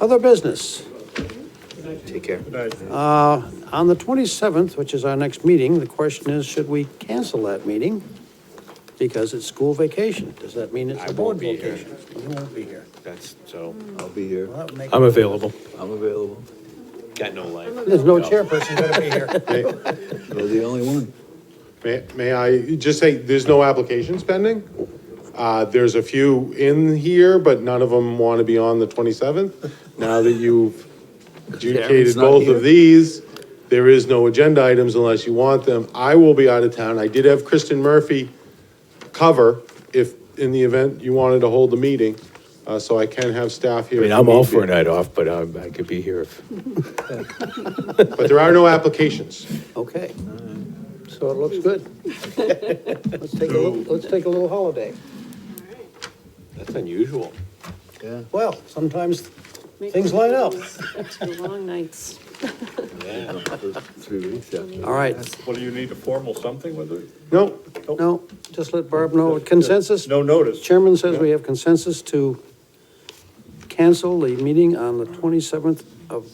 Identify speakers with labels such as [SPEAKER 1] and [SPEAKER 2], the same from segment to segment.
[SPEAKER 1] Other business. Uh,
[SPEAKER 2] Take care.
[SPEAKER 1] On the 27th, which is our next meeting, the question is, should we cancel that meeting? Because it's school vacation. Does that mean it's
[SPEAKER 2] I
[SPEAKER 1] a board
[SPEAKER 2] won't be here.
[SPEAKER 1] vacation? Uh, You won't be here.
[SPEAKER 2] That's, so,
[SPEAKER 3] I'll be here.
[SPEAKER 1] Well, that would make-
[SPEAKER 4] I'm available.
[SPEAKER 3] I'm available.
[SPEAKER 2] got no life.
[SPEAKER 1] There's no chairperson going to be here.
[SPEAKER 3] You're the only one.
[SPEAKER 5] May, may I just say, there's no applications pending? Uh, there's a few in here, but none of them want to be on the twenty-seventh. Now that you've adjudicated
[SPEAKER 3] Darren's not
[SPEAKER 5] both
[SPEAKER 3] here.
[SPEAKER 5] of these, there is no agenda items unless you want them. I will be out of town. I did have Kristen Murphy cover if, in the event you wanted to hold the meeting, uh, so I can have staff here.
[SPEAKER 4] I mean,
[SPEAKER 5] if
[SPEAKER 4] I'm
[SPEAKER 5] need
[SPEAKER 4] all
[SPEAKER 5] be.
[SPEAKER 4] for a night off, but I, I could be here if,
[SPEAKER 5] But there are no applications.
[SPEAKER 1] Okay. So it looks good. Let's take a, little- let's take a little holiday.
[SPEAKER 2] That's unusual.
[SPEAKER 3] Yeah.
[SPEAKER 1] Well, sometimes
[SPEAKER 6] Make
[SPEAKER 1] Things line up.
[SPEAKER 6] those Two long nights.
[SPEAKER 3] Three weeks after.
[SPEAKER 1] All right,
[SPEAKER 7] Well, do you need a formal something with it?
[SPEAKER 5] No,
[SPEAKER 1] no, just let Barb know consensus.
[SPEAKER 7] No notice.
[SPEAKER 1] Chairman says we have consensus to cancel the meeting on the 27th of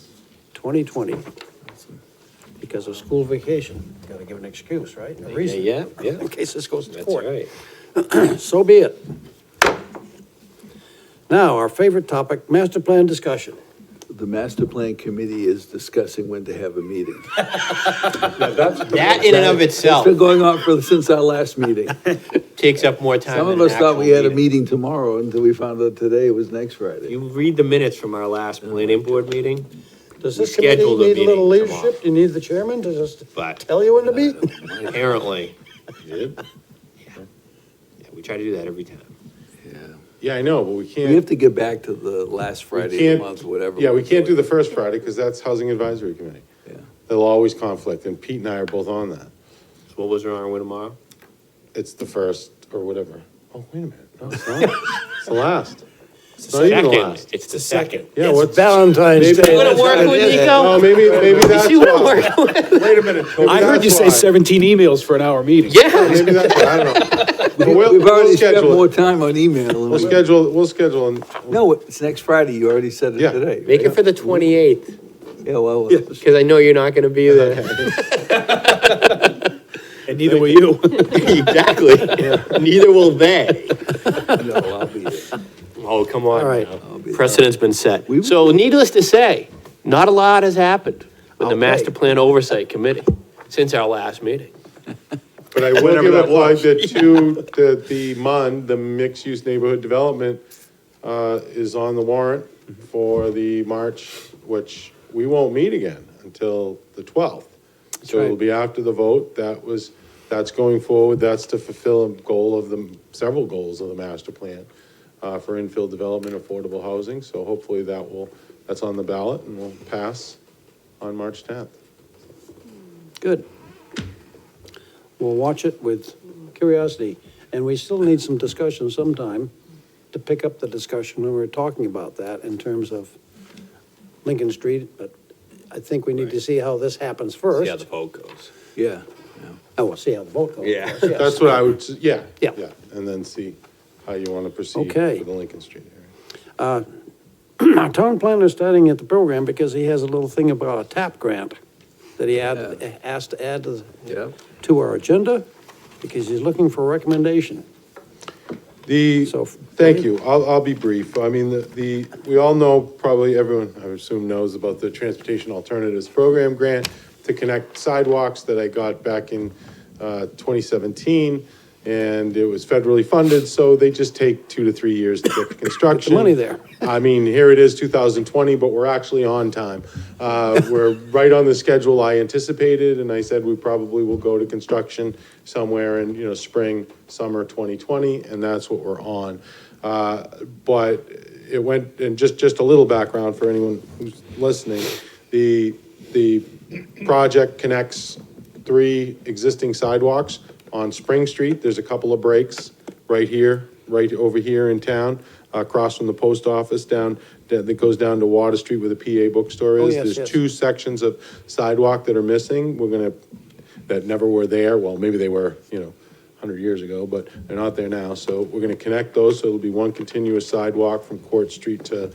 [SPEAKER 1] 2020 because of school vacation. Got to give an excuse, right? A
[SPEAKER 2] Yeah,
[SPEAKER 1] reason.
[SPEAKER 2] yeah, yeah.
[SPEAKER 1] In case this goes to
[SPEAKER 2] That's
[SPEAKER 1] court.
[SPEAKER 2] right.
[SPEAKER 1] So be it. Now, our favorite topic, master plan discussion.
[SPEAKER 3] The master plan committee is discussing when to have a meeting.
[SPEAKER 2] That in and of
[SPEAKER 3] It's
[SPEAKER 2] itself
[SPEAKER 3] been going on for, since our last meeting.
[SPEAKER 2] takes up more time
[SPEAKER 3] Some
[SPEAKER 2] than an
[SPEAKER 3] of us thought
[SPEAKER 2] actual
[SPEAKER 3] we had a
[SPEAKER 2] meeting.
[SPEAKER 3] meeting tomorrow until we found out today was next Friday.
[SPEAKER 2] You read the minutes from our last planning board meeting,
[SPEAKER 1] Does
[SPEAKER 2] We
[SPEAKER 1] this committee
[SPEAKER 2] scheduled a
[SPEAKER 1] need a little
[SPEAKER 2] meeting Uh, tomorrow.
[SPEAKER 1] leadership? Do you need the chairman to just
[SPEAKER 2] but
[SPEAKER 1] tell you when to be?
[SPEAKER 2] apparently. Yeah, We try to do that every time.
[SPEAKER 5] yeah, I know, but we can't.
[SPEAKER 3] We have to get back to the last
[SPEAKER 5] We
[SPEAKER 3] Friday of
[SPEAKER 5] can't-
[SPEAKER 3] the month, whatever.
[SPEAKER 5] Yeah, we
[SPEAKER 3] we're
[SPEAKER 5] can't do
[SPEAKER 3] doing.
[SPEAKER 5] the first Friday, because that's Housing Advisory Committee.
[SPEAKER 3] Yeah.
[SPEAKER 5] There'll always conflict, and Pete and I are both on that.
[SPEAKER 2] So What was our with tomorrow?
[SPEAKER 5] It's the first, or whatever. Oh, wait a minute, no, it's not. It's the last. It's not even the
[SPEAKER 2] Second,
[SPEAKER 5] last.
[SPEAKER 2] it's the second.
[SPEAKER 5] Yeah,
[SPEAKER 1] It's
[SPEAKER 5] what's?
[SPEAKER 1] Valentine's
[SPEAKER 5] Maybe-
[SPEAKER 1] Day.
[SPEAKER 2] Wouldn't work with
[SPEAKER 5] Oh,
[SPEAKER 2] Nico?
[SPEAKER 5] maybe, maybe that's
[SPEAKER 2] She wouldn't
[SPEAKER 5] why.
[SPEAKER 2] work with.
[SPEAKER 7] Wait a minute, Tony.
[SPEAKER 4] I heard you say
[SPEAKER 5] That's why.
[SPEAKER 4] 17 emails for an hour meeting.
[SPEAKER 2] Yeah.
[SPEAKER 5] Maybe that's why, I don't know. But
[SPEAKER 3] We-
[SPEAKER 5] we'll-
[SPEAKER 3] We've
[SPEAKER 5] we'll
[SPEAKER 3] already spent
[SPEAKER 5] schedule it.
[SPEAKER 3] more time on email. than
[SPEAKER 5] We'll
[SPEAKER 3] we-
[SPEAKER 5] schedule, we'll schedule, and
[SPEAKER 3] No, it's next Friday. You already said it
[SPEAKER 5] Yeah.
[SPEAKER 3] today.
[SPEAKER 2] Make it
[SPEAKER 3] right?
[SPEAKER 2] for the twenty-eighth,
[SPEAKER 3] Yeah, well,
[SPEAKER 2] because I know you're not gonna be there.
[SPEAKER 4] And neither were you.
[SPEAKER 2] Exactly. Neither will they.
[SPEAKER 3] no, I'll be there.
[SPEAKER 2] Oh, come on.
[SPEAKER 1] All right.
[SPEAKER 2] now.
[SPEAKER 3] I'll be there.
[SPEAKER 2] Precedent's been set.
[SPEAKER 3] We-
[SPEAKER 2] So needless to say, not a lot has happened with
[SPEAKER 1] Okay.
[SPEAKER 2] the Master Plan Oversight Committee since our last meeting.
[SPEAKER 5] But I will give a plug that two, that the MUND, the Mixed Use Neighborhood Development, uh, is on the warrant for the March, which we won't meet again until the twelfth. So it'll
[SPEAKER 1] right.
[SPEAKER 5] be after the vote. That was, that's going forward. That's to fulfill a goal of the, several goals of the master plan uh, for infill development, affordable housing. So hopefully that will, that's on the ballot and will pass on March tenth.
[SPEAKER 1] Good. We'll watch it with curiosity, and we still need some discussion sometime to pick up the discussion when we we're talking about that in terms of Lincoln Street, but I think we need to see how this happens
[SPEAKER 2] See how the
[SPEAKER 1] first.
[SPEAKER 2] vote goes.
[SPEAKER 3] Yeah.
[SPEAKER 1] Oh, we'll see how the vote goes. of
[SPEAKER 2] Yeah.
[SPEAKER 1] course, yes.
[SPEAKER 5] That's what I would, s- yeah.
[SPEAKER 1] Yeah.
[SPEAKER 5] And then see how you want to proceed
[SPEAKER 1] Okay.
[SPEAKER 5] for the Lincoln Street area.
[SPEAKER 1] Our town planner starting at the program because he has a little thing about a TAP grant that he added, asked to add to the
[SPEAKER 3] Yeah.
[SPEAKER 1] to our agenda because he's looking for a recommendation.
[SPEAKER 5] The,
[SPEAKER 1] So-
[SPEAKER 5] thank you, I'll, I'll be brief. I mean, the, the we all know, probably everyone, I assume, knows about the Transportation Alternatives Program grant to connect sidewalks that I got back in uh, 2017, and it was federally funded, so they just take two to three years to get the construction.
[SPEAKER 1] money there.
[SPEAKER 5] I mean, here it is, 2020, but we're actually on time. Uh, We're right on the schedule I anticipated, and I said we probably will go to construction somewhere in, you know, spring, summer 2020, and that's what we're on. Uh, But it went, and just, just a little background for anyone who's listening, the, the project connects three existing sidewalks on Spring Street. There's a couple of breaks right here, right over here in town, across from the post office down, that that goes down to Water Street where the PA bookstore
[SPEAKER 1] Oh,
[SPEAKER 5] is.
[SPEAKER 1] yes, yes.
[SPEAKER 5] There's two sections of sidewalk that are missing. We're gonna, that never were there. Well, maybe they were, you know, 100 years ago, but they're not there now. So we're gonna connect those, so it'll be one continuous sidewalk from Court Street to